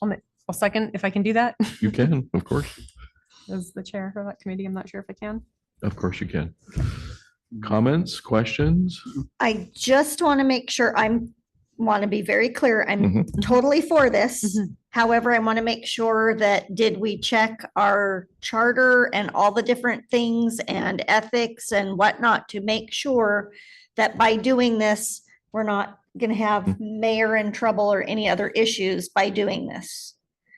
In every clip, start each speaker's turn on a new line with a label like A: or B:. A: I'll ma- I'll second if I can do that
B: You can, of course.
A: as the chair of that committee. I'm not sure if I can.
B: Of course you can. Comments, questions?
C: I just want to make sure I'm, want to be very clear. I'm totally for this.
A: Mhm.
C: However, I want to make sure that did we check our charter and all the different things and ethics and whatnot to make sure that by doing this, we're not going to have mayor in trouble or any other issues by doing this.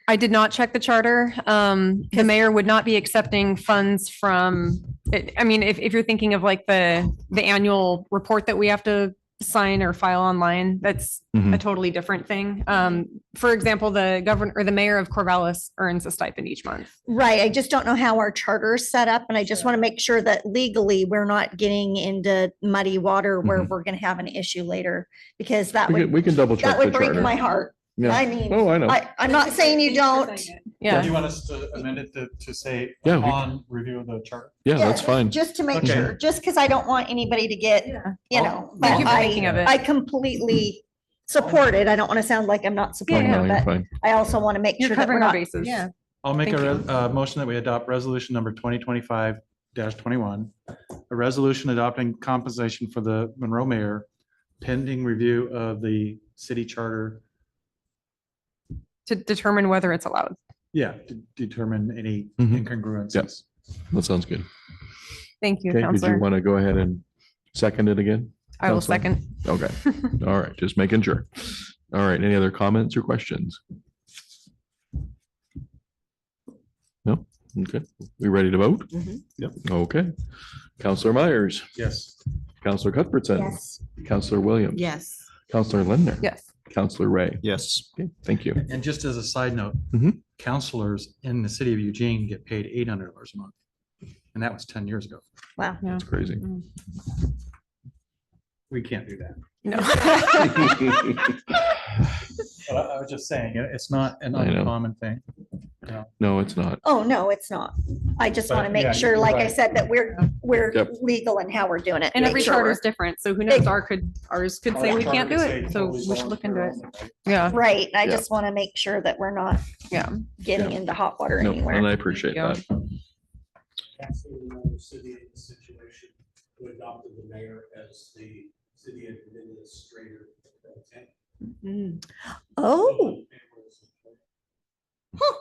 A: I did not check the charter. Um, the mayor would not be accepting funds from, I- I mean, if, if you're thinking of like the, the annual report that we have to sign or file online, that's a
B: Mhm.
A: totally different thing. Um, for example, the governor or the mayor of Corvallis earns a stipend each month.
C: Right, I just don't know how our charter is set up, and I just want to make sure that legally we're not getting into muddy water where
B: Mhm.
C: we're gonna have an issue later, because that
B: We can,
C: would,
B: we can double
C: that
B: check the
C: would break my
B: charter.
C: heart.
B: Yeah.
C: I mean,
B: Oh, I know.
C: I, I'm not saying you don't.
B: Yeah.
D: Do you want us to amend it to, to say
B: Yeah, we-
D: upon review of the chart?
B: Yeah,
C: Yeah,
B: that's fine.
C: Just to make
D: Okay.
C: sure, just because I don't want anybody to get, you
D: I'll-
C: know, but
A: Thank you for
C: I,
A: thinking of it.
C: I completely support it. I don't want to sound like I'm not
B: No,
C: supporting
B: no,
C: it,
B: you're
C: but
B: fine.
C: I also want to make
A: You're
C: sure that we're
A: covering our
C: not.
A: bases.
C: Yeah.
D: I'll make
C: Thank
D: a, re- uh, motion that we adopt resolution number twenty twenty-five twenty-one. A resolution adopting compensation for the Monroe mayor pending review of the city charter.
A: To determine whether it's allowed.
D: Yeah, to determine any
B: Mhm.
D: incongruencies.
B: That sounds good.
A: Thank you,
B: Okay, did you
A: Counselor.
B: want to go ahead and second it again?
A: I will
B: Counselor?
A: second.
B: Okay, all right, just making sure. All right, any other comments or questions? No? Okay, we ready to vote?
C: Mhm.
D: Yep.
B: Okay. Counselor Myers,
D: Yes.
B: Counselor Cuthbertson,
C: Yes,
B: Counselor Williams,
E: Yes.
B: Counselor Lindner,
A: Yes.
B: Counselor Ray.
F: Yes.
B: Okay, thank you.
D: And just as a side note,
B: Mhm.
D: counselors in the city of Eugene get paid eight hundred dollars a month. And that was ten years ago.
C: wow.
B: That's crazy.
D: We can't do that.
A: No.
D: But I, I was just saying, it- it's not an
B: I know.
D: uncommon thing.
B: No, it's not.
C: Oh, no, it's not. I just
D: But,
C: want to
D: yeah,
C: make sure, like I
D: right.
C: said, that we're, we're
B: Yep.
C: legal in how we're doing it.
A: And
C: make
A: every
C: sure
A: charter
C: we're-
A: is different, so who knows, our could, ours could say we can't do it, so we should look into it. Yeah,
C: Right, I
B: Yeah.
C: just want to make sure that we're not
A: yeah.
C: getting into hot water
B: No, and
C: anywhere.
B: I appreciate
A: Yeah.
B: that.
G: Actually, another city in the situation who adopted the mayor as the city administrator. pro temp.
C: Oh,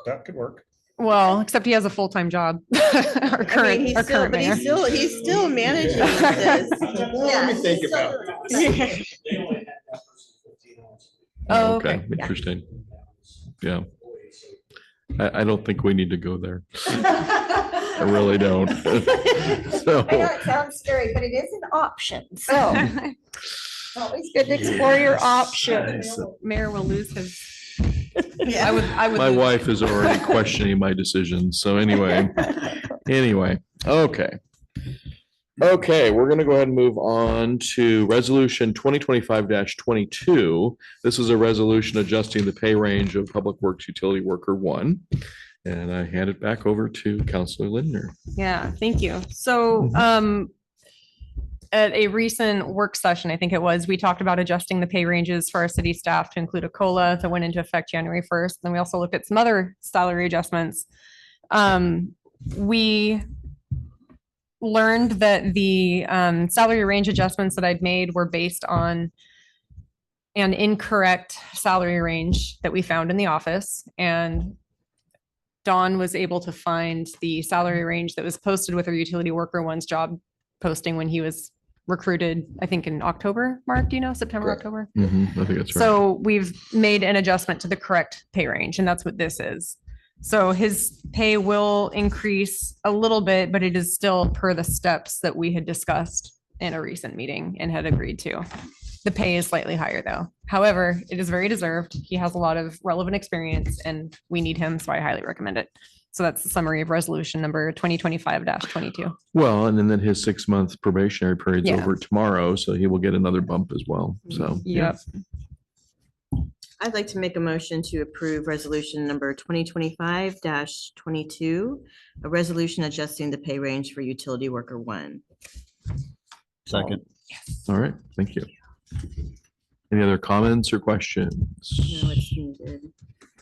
D: That could work.
A: Well, except he has a full-time job. Our
E: I mean,
A: current,
E: he's
A: our
E: still,
A: current
E: but
A: mayor.
E: he's still, he's still managing this.
C: let me think
G: about
E: it.
G: They only had that person fifteen hours.
A: Oh,
B: Okay,
A: okay.
C: Yeah.
B: interesting. Oh. Yeah,
G: Employees.
B: I, I don't think we need to go there. I really don't. So.
C: I know it sounds scary, but it is an option, so it's always good to explore your options.
A: Mayor will lose his, I
E: Yeah.
A: would, I would.
B: My
A: lose-
B: wife is already questioning my decisions. So anyway, anyway, okay. Okay, we're gonna go ahead and move on to resolution twenty twenty-five twenty-two. This is a resolution adjusting the pay range of Public Works Utility Worker One. And I hand it back over to Counselor Lindner.
A: Yeah, thank you. So, um, at a recent work session, I think it was, we talked about adjusting the pay ranges for our city staff to include a COLA that went into effect January first. Then we also looked at some other salary adjustments. Um, we learned that the, um, salary range adjustments that I'd made were based on an incorrect salary range that we found in the office. And Dawn was able to find the salary range that was posted with her utility worker one's job posting when he was recruited, I think in October, Mark, do you know, September,
B: Correct.
A: October?
B: Mm-hmm, I think that's right.
A: So we've made an adjustment to the correct pay range and that's what this is. So his pay will increase a little bit, but it is still per the steps that we had discussed in a recent meeting and had agreed to. The pay is slightly higher though. However, it is very deserved. He has a lot of relevant experience and we need him, so I highly recommend it. So that's the summary of resolution number twenty twenty-five twenty-two.
B: Well, and then his six-month probationary period's
A: Yeah.
B: over tomorrow, so he will get another bump as well. So. yeah.
A: Yep.
E: I'd like to make a motion to approve resolution number twenty twenty-five twenty-two, a resolution adjusting the pay range for utility worker one.
F: Second.
B: All right, thank you. Any other comments or questions?
E: No, it's needed.